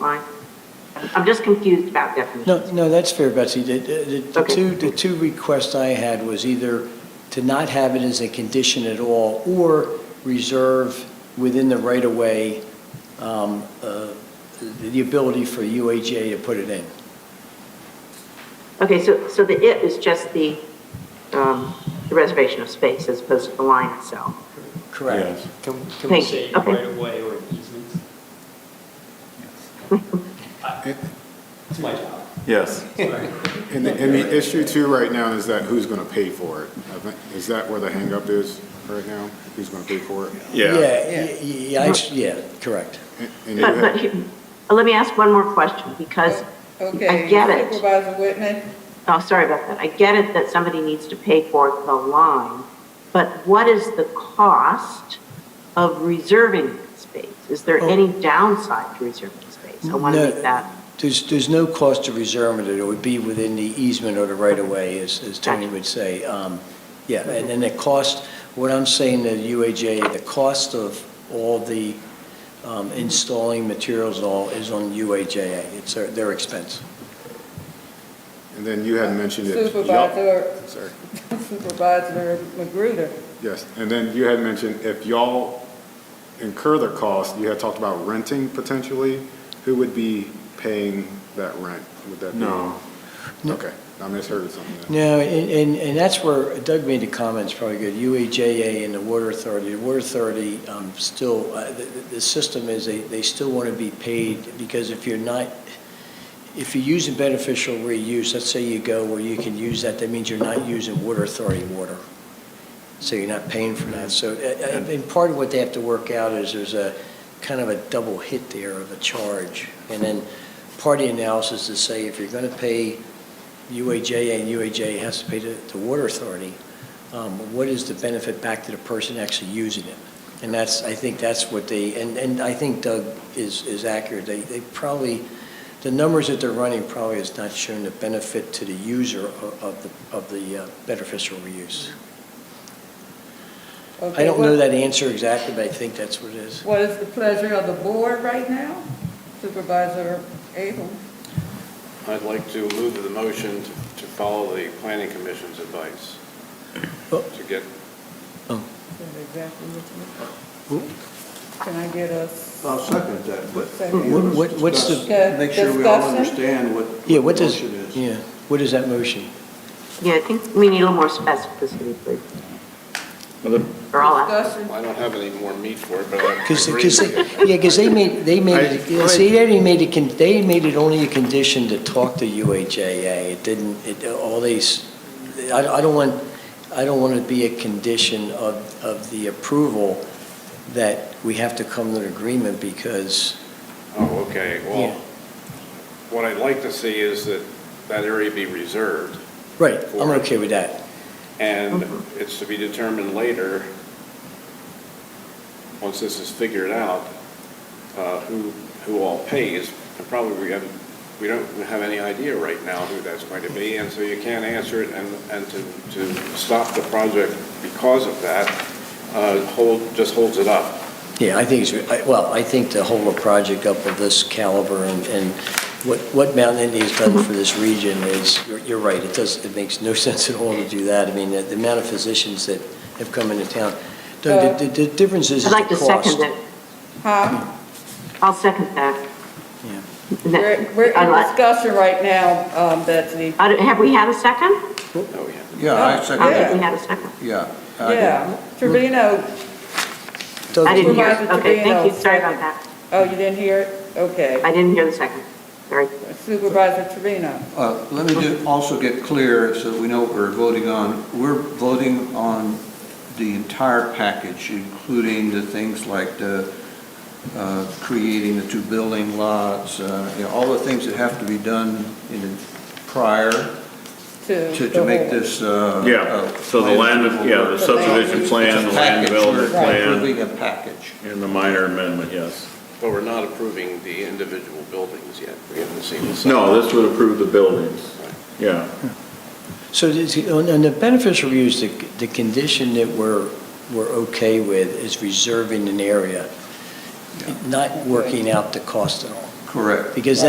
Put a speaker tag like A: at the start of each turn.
A: line? I'm- I'm just confused about definitions.
B: No, no, that's fair, Betsy. The- The the
A: Okay.
B: two, the two requests I had was either to not have it as a condition at all, or reserve within the right-of-way um, uh, the ability for UAJ to put it in.
A: Okay, so, so the "it" is just the, um, the reservation of space as opposed to the line itself?
B: Correct.
C: Can, can we
A: Thank you.
C: say
A: Okay.
C: right of way or easements? I- It's my job.
D: Yes.
C: Sorry.
E: And the, and the issue too right now is that who's gonna pay for it? I think- Is that where the hangup is right now? Who's gonna pay for it?
B: Yeah, y- y- I s- yeah, correct.
E: And- and you
A: But,
E: have-
A: but, he- let me ask one more question, because
F: Okay,
A: I get it.
F: Supervisor Whitman?
A: Oh, sorry about that. I get it that somebody needs to pay for the line, but what is the cost of reserving space? Is there
B: Oh.
A: any downside to reserving space? I want
B: No.
A: to make that,
B: There's, there's no cost to reserve it. It would be within the easement or the right-of-way, as, as Tony
A: Gotcha.
B: would say. Um, Yeah, and then the cost, what I'm saying to UAJ, the cost of all the um, installing materials and all is on UAJA. It's their, their expense.
E: And then you had mentioned it.
F: Supervisor,
E: Sorry,
F: Supervisor Magruder?
E: yes, and then you had mentioned if y'all incur the cost, you had talked about renting potentially, who would be paying that rent? Would that be?
D: No.
E: Okay, I misheard something then.
B: No, and, and, and that's where Doug made the comments, probably good, UAJA and the Water Authority, the Water Authority, um, still, uh, the, the- the system is they, they still want to be paid, because if you're not, if you're using beneficial reuse, let's say you go where you can use that, that means you're not using Water Authority water. So you're not paying for that, so, uh, uh, and part of what they have to work out is there's a, kind of a double hit there of a charge. And then part of the analysis is say, if you're going to pay UAJA, and UAJA has to pay to the Water Authority, um, what is the benefit back to the person actually using it? And that's, I think that's what they, and, and I think Doug is, is accurate. They, they probably, the numbers that they're running probably has not shown the benefit to the user of of the, of the uh, beneficial reuse. I
F: Okay,
B: don't know
F: what-
B: that answer exactly, but I think that's what it is.
F: What is the pleasure of the board right now? Supervisor Abel?
G: I'd like to move the motion to to follow the planning commission's advice
B: Oh.
G: to get,
F: That's exactly what you- Can I get us,
D: I'll second that, but
F: Second.
B: What- what- what's the-
F: Okay,
D: discuss- make sure we all
F: discussion?
D: understand what
B: Yeah, what
D: what the
B: does,
D: motion is.
B: yeah, what is that motion?
A: yeah, I think we need a little more specificity, please. Or I'll ask.
F: discussion?
G: I don't have any more meat for it, but I
B: Because,
G: agree with you.
B: yeah, because they made, they made, it-
E: I- go ahead.
B: see, they only made it, con- they made it only a condition to talk to UHAA. It didn't, it, all these, I, I don't want, I don't want it to be a condition of, of the approval that we have to come to an agreement because,
G: Oh, okay,
B: Yeah.
G: well, what I'd like to see is that that area be reserved,
B: right, I'm okay with that.
G: and it's to be determined later, once this is figured out, uh, who, who all pays. And Probably we have, we don't have any idea right now who that's going to be, and so you can't answer it, and, and to, to stop the project because of that, uh, hold, just holds it up.
B: Yeah, I think, it's- I- well, I think to hold a project up of this caliber and, and what, what Mountain India's done for this region is, you're, you're right, it does, it makes no sense at all to do that. I mean, the the amount of physicians that have come into town, Doug, the, the the difference is
A: I'd
B: is the
A: like to
B: cost.
A: second it.
F: Huh?
A: I'll second that.
B: Yeah.
A: And that-
F: We're, we're
A: I'd
F: in
A: like-
F: discussion right now, um, Betsy.
A: I don't- Have we had a second?
G: Oh, yeah.
D: Yeah, I
A: I don't think
D: second
A: we had a second.
D: it, yeah. I did.
F: Yeah, Trevino,
B: Doug,
A: I didn't hear,
F: Supervisor
A: it. okay, thank you,
F: Trevino,
A: sorry about
F: second.
A: that.
F: oh, you didn't hear it? Okay.
A: I didn't hear the second, sorry.
F: Supervisor Trevino.
D: Uh, Let me do- also get clear so that we know what we're voting on. We're voting on the entire package, including the things like the, uh, creating the two building lots, uh, you know, all the things that have to be done in the prior to, to make this. uh,
H: Yeah,
D: uh,
H: so the
D: plan
H: land, yeah, the subdivision plan, the land
D: It's a package.
H: development
D: We're
H: plan,
D: Approving a package.
H: and the minor amendment, yes.
G: But we're not approving the individual buildings yet. We haven't seen the.
H: No, this would approve the buildings, yeah.
B: So this- on on the beneficial use, the, the condition that we're, we're okay with is reserving an area, not working out the cost at all.
D: Correct.
B: Because